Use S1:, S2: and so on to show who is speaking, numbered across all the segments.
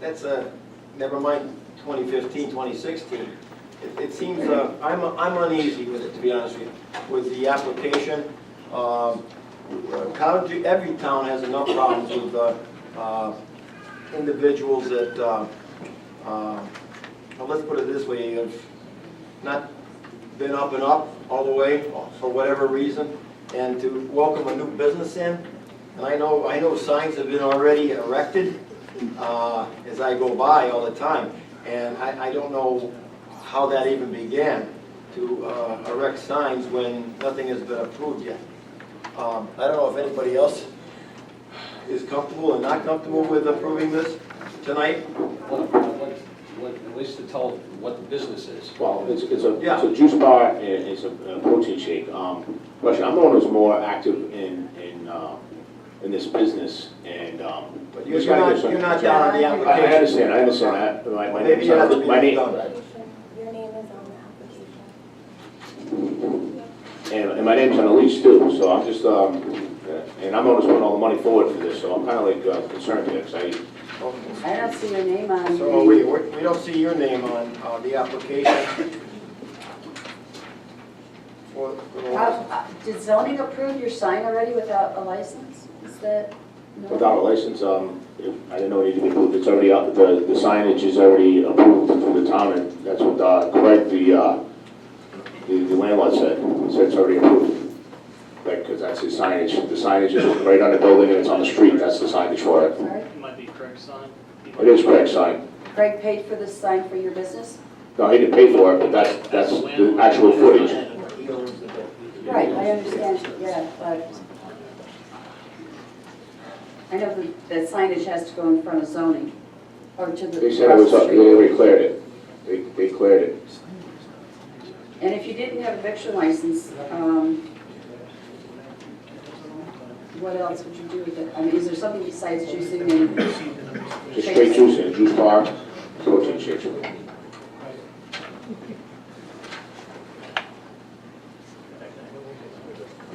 S1: That's a, never mind 2015, 2016. It- It seems, uh, I'm I'm uneasy with it, to be honest with you, with the application. Um, uh, County, every town has enough problems with uh, uh, individuals that, uh, uh, well, let's put it this way, have not been up and up all the way for whatever reason, and to welcome a new business in. And I know, I know signs have been already erected uh, as I go by all the time. And I, I don't know how that even began, to uh, erect signs when nothing has been approved yet. Um, I don't know if anybody else is comfortable and not comfortable with approving this tonight.
S2: Well, what- what- At least to tell what the business is.
S3: Well, it's, it's a,
S1: Yeah.
S3: it's a juice bar and it's a a protein shake. Um, Russia, I'm the one who's more active in, in, uh, in this business and, um.
S1: But you're
S3: it's gotta
S1: not,
S3: get some-
S1: you're not down on the
S3: I,
S1: application.
S3: I understand, I understand, I, my, my
S1: Maybe
S3: name's
S1: you have to
S3: on,
S1: be
S3: my name,
S1: done.
S4: Your name is on the application.
S3: and, and my name's on the lease too, so I'm just, um, and I'm the one who's putting all the money forward for this, so I'm kinda like uh, concerned here, 'cause I,
S1: Okay.
S5: I don't see your name on
S1: So we,
S5: the,
S1: we we don't see your name on uh, the application. For- for the-
S5: How- uh, did zoning approve your sign already without a license? Is that? no?
S3: Without a license, um, I didn't know it needed to be moved, it's already up, the the signage is already approved through the town, and that's what uh, Craig, the, uh, the the landlord said, He said it's already approved. Like, because that's the signage, the signage is right on the building and it's on the street, that's the signage for it.
S5: Sorry?
S6: It Might be Craig's sign.
S3: It is Craig's sign.
S5: Greg paid for this sign for your business?
S3: No, he didn't pay for it, but that's, that's the actual footage.
S1: He owns the building.
S5: Right, I understand, yeah, but I know the the signage has to go in front of zoning or to the.
S3: They said it was, up. they
S5: street.
S3: already cleared it, they, they cleared it.
S5: And if you didn't have a victual license, um, what else would you do with it? I mean, is there something besides juicing and,
S3: Just straight juice and juice bar, protein shakes.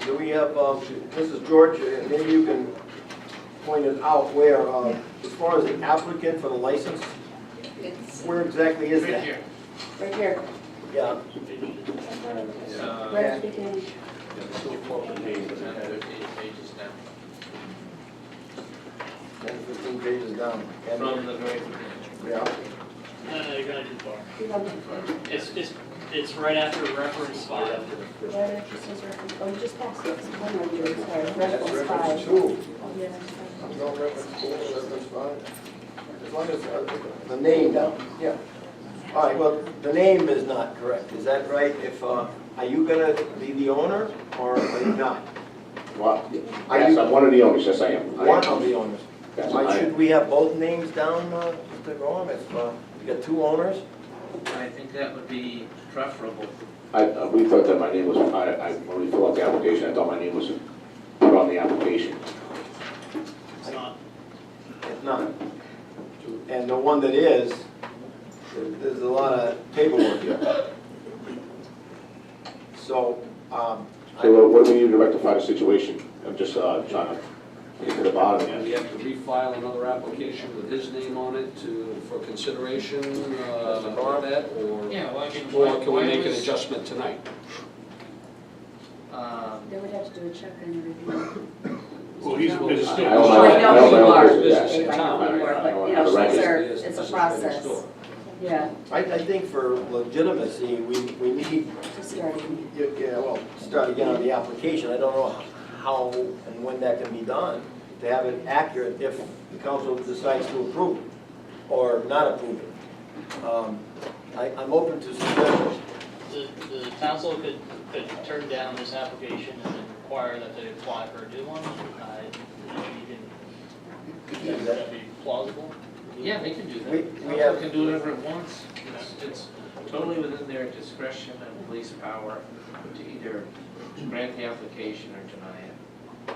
S1: Do we have, um, Mrs. George, uh, maybe you can point it out where, uh, as far as the applicant for the license, where exactly is
S6: Right
S1: that?
S6: here.
S5: right here,
S1: Yeah,
S5: right at the beginning?
S1: ten, fifteen pages down. And-
S6: From the very beginning.
S1: Yeah,
S6: No, no, you're going too far.
S5: You want to-
S6: It's, it's, it's right after reference five.
S4: Right after says reference, oh, you just passed it.
S5: One more year, sorry,
S1: that's
S5: reference
S1: reference
S5: five.
S1: two.
S4: Yeah.
S1: No reference four, reference five. As long as, uh, the name, down. yeah. All right, well, the name is not correct, is that right? If, uh, are you gonna be the owner or are you not?
S3: What?
S1: Are
S3: Yes,
S1: you-
S3: I'm one of the owners, yes, I am. I am.
S1: One of the owners.
S3: Yes, I
S1: Why
S3: am.
S1: should we have both names down, uh, Mr. Gorham, if uh, you got two owners?
S7: I think that would be preferable.
S3: I, uh, we thought that my name was, I, I, when we filled out the application, I thought my name was put on the application.
S6: It's not,
S1: If not, and the one that is, there- there's a lot of paperwork here. So, um,
S3: So what- what do we need to rectify the situation? I'm just, uh, trying to get to the bottom
S2: And we
S3: of it.
S2: have to refile another application with his name on it to, for consideration, uh, of that, or,
S7: Yeah, well, I mean, why,
S2: or can we
S7: why
S2: make an
S7: was,
S2: adjustment tonight?
S7: um,
S5: They would have to do a check and review.
S2: Well, he's,
S3: I
S2: still.
S3: I own my-
S5: Well, I know
S3: I own my
S5: you
S3: own
S5: are.
S3: business, yes.
S5: You
S3: I
S5: are,
S3: own- I own-
S5: but, you
S3: I own
S5: know,
S3: the records.
S5: things are- it's a process. Yeah,
S1: I, I think for legitimacy, we, we need,
S5: just starting.
S1: yeah, yeah, well, start again on the application. I don't know how and when that can be done, to have it accurate if the council decides to approve it or not approve it. Um, I, I'm open to suggestions.
S6: the, the council could, could turn down this application and then require that they apply for a new one. I, you can, could that be plausible?
S7: yeah, they can do that.
S1: We- we
S7: Council
S1: have-
S7: Can do whatever it wants. It's, it's totally within their discretion and police power to either grant the application or deny it.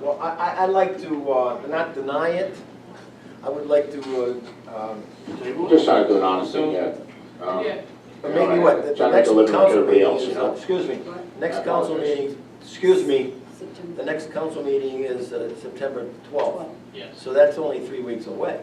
S1: Well, I, I, I'd like to, uh, not deny it. I would like to, uh, um,
S3: Just trying to do an honest thing, yeah. Um,
S7: Yeah.
S1: But maybe what, the- the
S3: Trying to
S1: next
S3: deliver
S1: council
S3: everybody
S1: meeting,
S3: else,
S1: is-
S3: you know?
S1: excuse me,
S5: What?
S1: next
S3: I
S1: council
S3: apologize.
S1: meeting, excuse me,
S5: September
S1: the next council meeting is uh, September 12th.
S5: twelfth.
S6: Yes.
S1: So that's only three weeks away.